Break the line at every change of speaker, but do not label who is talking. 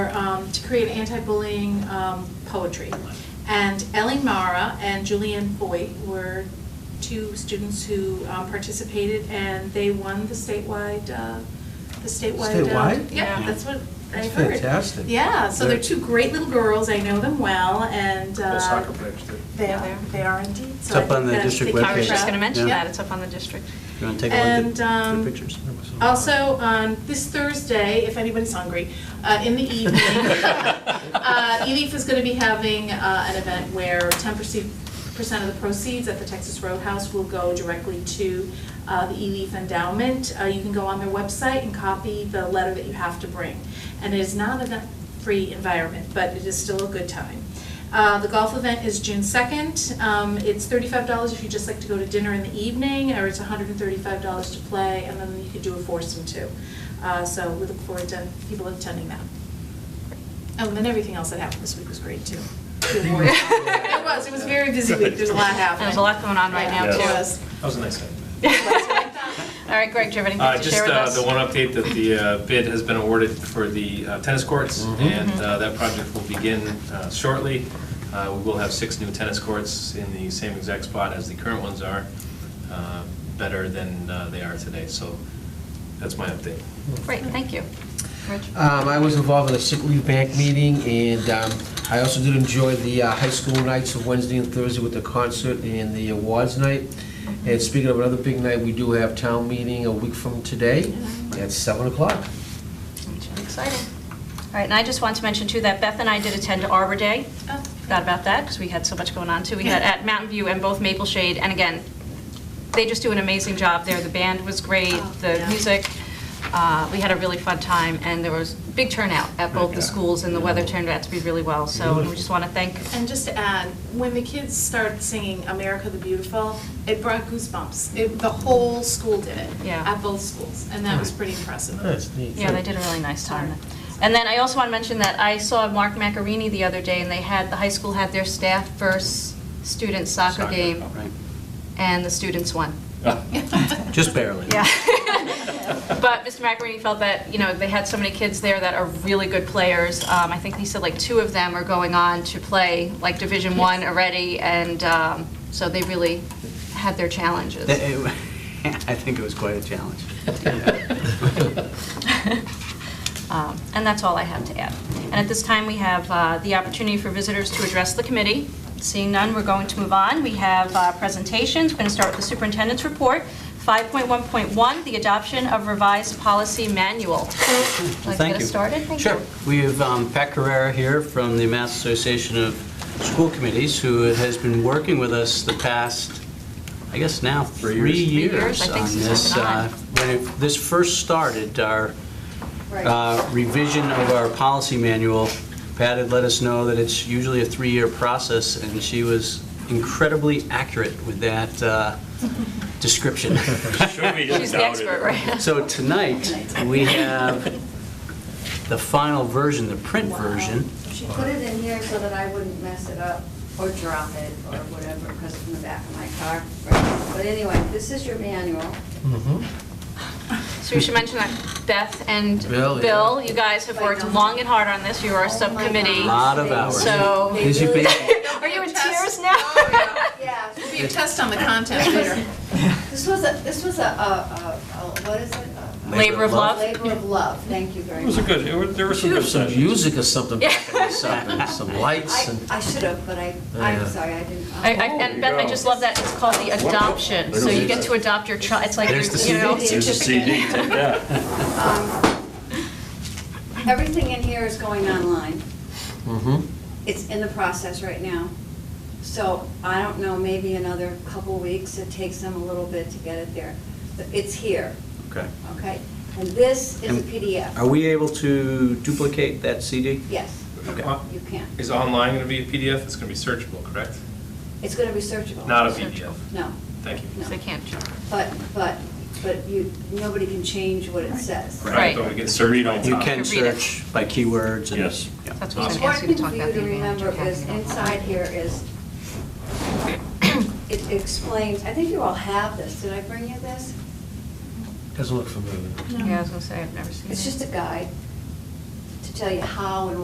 um, to create anti-bullying um, poetry. And Ellie Mara and Julianne Voigt were two students who um, participated, and they won the statewide, uh, the statewide. uh,
Statewide?
Yeah,
Yeah.
that's what I
That's
heard.
fantastic.
Yeah, so they're
They're-
two great little girls, I know them well, and. uh,
Little soccer players, too.
They are, they are indeed.
It's
So I
up on
think
the
that-
district
they
I was
webpage.
just going to mention
Yeah.
that, it's up on the district.
You want to take a look
And,
at
um,
the pictures?
Also, on this Thursday, if anybody's hungry, uh, in the evening, uh, EDIF is going to be having uh, an event where 10% of the proceeds at the Texas Roadhouse will go directly to uh, the EDIF endowment. Uh, You can go on their website and copy the letter that you have to bring. And it is not a free environment, but it is still a good time. Uh, The golf event is June 2nd. Um, It's $35 if you just like to go to dinner in the evening, or it's $135 to play, and then you could do a foursome too. Uh, So we look forward to people attending that. Oh, and then everything else that happened this week was great too. It was, it was a very busy week, there's a lot happening.
There's a lot going on right now,
Yeah,
too.
It was.
That was a nice idea.
All right, Greg, do you have
Uh,
anything to
Just
share with
uh,
us?
the one update that the uh, bid has been awarded for the uh, tennis courts,
Mm-hmm.
and uh, that project will begin uh, shortly. Uh, We will have six new tennis courts in the same exact spot as the current ones are, uh, better than uh, they are today. So that's my update.
Great, thank you. Rich?
Uh,
Um, I was involved in a sick leave bank meeting, and um, I also did enjoy the uh, high school nights of Wednesday and Thursday with the concert and the awards night. And speaking of another big night, we do have town meeting a week from today at 7 o'clock.
Exciting. All right, and I just want to mention too that Beth and I did attend Arbor Day.
Oh,
Forgot about that because we had so much going on too. We had at Mountain View and both Maple Shade. And again, they just do an amazing job there. The band was great,
Oh,
the
yeah.
music. uh, We had a really fun time and there was big turnout at both the schools and the weather turned out to be really well. So we just want to thank,
And just to add, when the kids started singing America the Beautiful, it brought goosebumps. It, the whole school did it.
Yeah.
At both schools, and that was pretty impressive.
That's neat.
yeah, they did a really nice time. And then I also want to mention that I saw Mark Macarini the other day and they had, the high school had their staff versus student soccer
Soccer,
game
Right.
and the students won.
Oh,
Just barely.
Yeah. But Mr. Macarini felt that, you know, they had so many kids there that are really good players. Um, I think he said like two of them are going on to play like Division One already, and um, so they really had their challenges.
That- it- I think it was quite a challenge.
Um, And that's all I have to add. And at this time, we have uh, the opportunity for visitors to address the committee. Seeing none, we're going to move on. We have uh, presentations. We're going to start with the superintendent's report. 5.1.1, the adoption of revised policy manual. Like to
Thank
get us
you.
started? Thank
Sure.
you.
We have um, Pat Carrera here from the Mass Association of School Committees, who has been working with us the past, I guess now,
Three
three
years. Three years,
years
I think,
on
since I've
this.
been on.
uh, When it- this first started, our uh, revision of our policy manual, Pat had let us know that it's usually a three-year process, and she was incredibly accurate with that uh, description.
She's the expert, right?
So tonight, we have the final version, the print
Wow.
version.
She put it in here so that I wouldn't mess it up or drop it or whatever, because it's in the back of my car. But anyway, this is your manual.
Mm-hmm.
So we should mention that Beth and
Bill, yeah.
Bill, you guys have worked long and hard on this. You
Oh
are a subcommittee.
Lot of hours.
So-
Busy
They really-
bee.
Are you in
Test.
tears now?
Yeah,
It'll be a test on the content later.
this was a, this was a, a, a, a- what is it? A- a-
Labor of love.
Labor of love, thank you very
It was a
much.
good, it was- there were some
Should have
good
some
sessions.
music or something, back in this up, and some lights
I,
and...
I should have, but I,
Yeah.
I'm sorry, I didn't. uh,
I, I, and Beth, I just love that it's called the adoption. So you get to adopt your child. It's like,
There's the
you know,
CD. There's the
CD,
certificate.
take that.
um, Everything in here is going online.
Mhm.
It's in the process right now. So I don't know, maybe another couple weeks, it takes them a little bit to get it there. But It's here,
Okay.
okay? And this is a
And Are
PDF.
we able to duplicate that CD?
Yes,
Okay.
you can.
Is online going to be a PDF? It's going to be searchable, correct?
It's going to be searchable.
Not a PDF.
No,
Thank you.
no.
They can't.
But, but, but you, nobody can change what it says.
Right.
But we get
To read on
searchable.
You
top.
can
To read it.
search by keywords and...
Yes.
Yeah.
That's what I was
It's
going to ask you
important
to talk
for
about.
you
the
to
environment
remember
you're
is
having.
inside here is, it explains, I think you all have this. Did I bring you this?
Doesn't look familiar.
Yeah, I was going to say, I've never seen it.
It's just a guide to tell you how and